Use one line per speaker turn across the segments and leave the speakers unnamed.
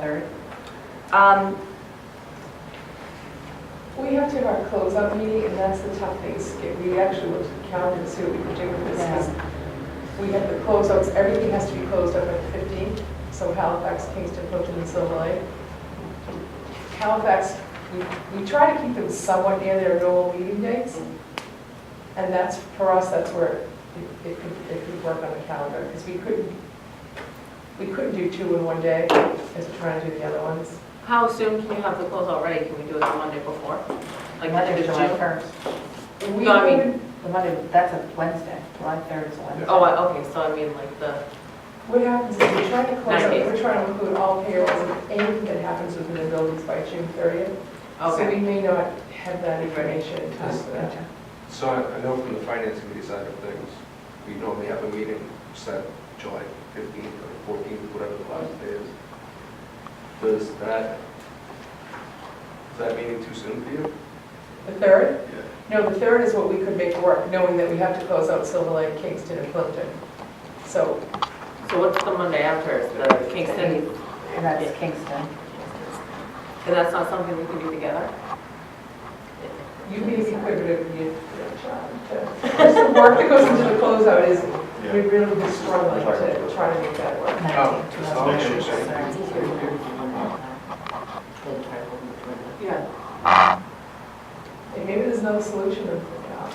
3rd. Um,
We have to have our close-up meeting, and that's the tough thing, Skip. We actually looked at the calendar to see what we could do with this, because we have the closeouts, everything has to be closed up at 15, so Halifax, Kingston, Houghton, and Silver Lake. Halifax, we, we try to keep them somewhat near their normal meeting dates, and that's, for us, that's where it it could, it could work on the calendar, because we couldn't, we couldn't do two in one day, as we're trying to do the other ones.
How soon can you have the closeout ready? Can we do it the Monday before? Like,
Monday,
end of
July
June?
1st.
We
No, I mean-
would-
The Monday, that's a Wednesday, July 3rd is a Wednesday.
Oh, I- okay, so I mean, like, the,
What happens is we're trying to close, out-
Ninety.
we're trying to include all payrolls and anything that happens within the buildings by June 30th. So we
okay.
may not have that information in time for that.
Gotcha.
So I I know from the finance committee side of things, we normally have a meeting set July 15th or 14th, whatever the last day is. Does that, is that meeting too soon for you?
The third?
Yeah.
No, the third is what we could make work, knowing that we have to close out Silver Lake, Kingston, and Clinton. So
So what's the Monday after? Is the Kingston?
And that's Kingston.
And that's not something we can do together?
you may be quicker to you, John, to, just the work that goes into the closeout is, we really be struggling to try to make that work.
Oh, it's not an issue.
Yeah.
And maybe there's no solution to that.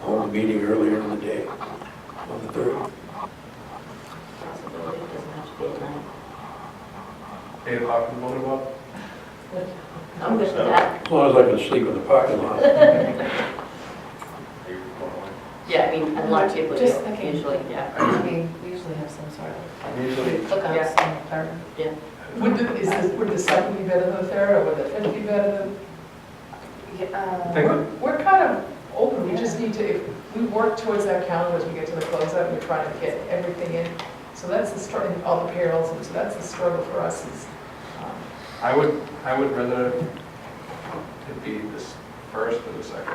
Hold a meeting earlier in the day, on the 3rd.
Eight o'clock in the morning, Bob?
I'm good for that.
As long as I can sleep in the parking lot.
Yeah, I mean, I'm not table
Just thinking.
usually, yeah.
I mean, we usually have some sort of
Usually,
cookouts on the 3rd.
Would the, is the, would the second be better than the third, or would the fifth be better than?
um,
Thank
We're, we're kind of open, we just need to, if we work towards that calendar as we get to the closeout, we're trying to get everything in. So that's the struggle, all the payrolls, and so that's the struggle for us is, um,
I would, I would rather it be this first or the second.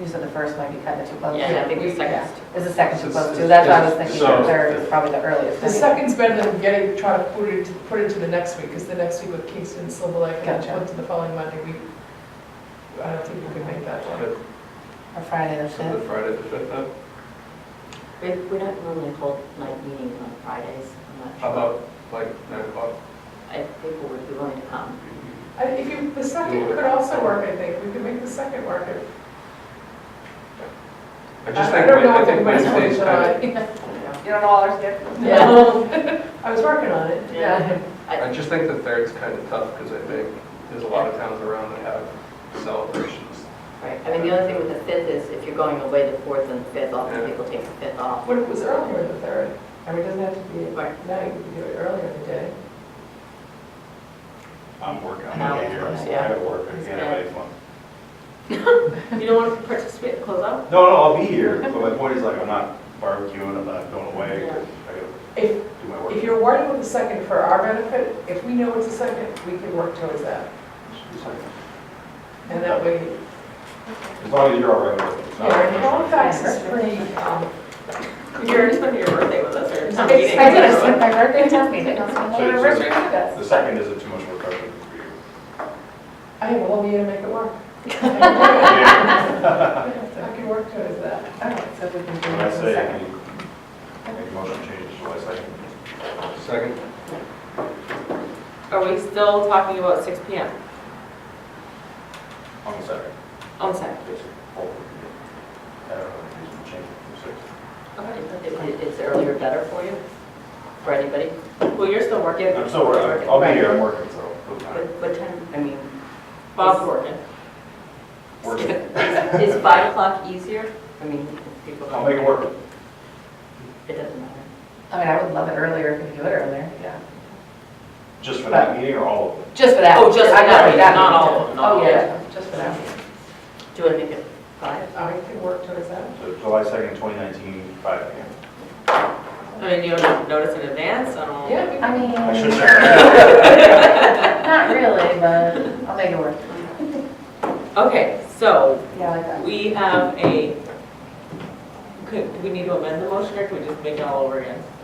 You said the first might be kind of too close.
Yeah, I think the second.
Is the second too
It's-
close too? That's why I was
it's-
thinking the
so-
third is probably the earliest.
the second's better than getting, trying to put it, to- put it to the next week, because the next week with Kingston, Silver Lake, and
Gotcha.
then to the following Monday, we, I don't think we could make that one.
So
Or Friday the 5th.
the Friday the 5th, then?
We, we don't normally hold night meetings on Fridays, I'm not
how
sure.
about like nine o'clock?
I, people would be willing to come.
I- If you, the second could also work, I think, we could make the second work. if-
I just
I
think,
don't know
I
if
think
anybody's
Wednesday's kind of
willing to try.
You don't all are
I was working on it.
Yeah.
I just think the third's kind of tough because I think there's a lot of towns around that have celebrations.
Right, I mean, the only thing with the fifth is if you're going away the fourth and the fifth, often people take the fifth off.
What if it was earlier in the third? I mean, it doesn't have to be at
Right.
night, we could do it earlier in the day.
I'm working, I'm
An hour
gonna be here,
from
I
now,
still
yeah.
gotta work, I can't have any fun.
You don't want to participate in the closeout?
No, no, I'll be here, but my point is like, I'm not barbecuing, I'm not going away,
Yeah.
I gotta
If,
do my
if
work.
you're worried about the second for our benefit, if we know it's a second, we can work towards that. And that way,
As long as you're all right with it. it's not-
yeah, Halifax is pretty, um,
You're already spending your birthday with us or
I
something.
did, I spent my birthday town meeting, I was going
So
to
it's-
anniversary with us.
The second isn't too much work, I think, for you.
I have a whole year to make it work. I can work towards that.
Okay, so we can do it
When I
on the
say,
second.
any, any motion changes, July second.
Second,
Are we still talking about six P M
On the second.
on Saturday?
Yes, sir. Hold it. I don't know, if there's a change from six.
Is, is earlier better for you, for anybody?
Well, you're still working.
I'm still working, I'll be here, I'm working, so. it'll be
What,
fine.
what time, I mean,
Bob's working.
Working,
is, is five o'clock easier? I mean, if people.
I'll make it work.
It doesn't matter.
I mean, I would love it earlier if we could do it earlier, yeah.
Just for that meeting or all of it?
Just for that.
Oh, just for
I know,
that,
that
not
meeting.
all of them, not all
Oh,
of
yeah, just for that. meeting.
Do you want to make it five?
I can work towards that.
So July second, twenty nineteen, five P M.
I mean, you don't notice in advance, I don't.
Yeah, we can.
I
I
mean,
should check.
not really, but I'll make it work.
Okay, so
Yeah, I like that.
we have a, could, do we need to amend the motion or can we just make it all over again?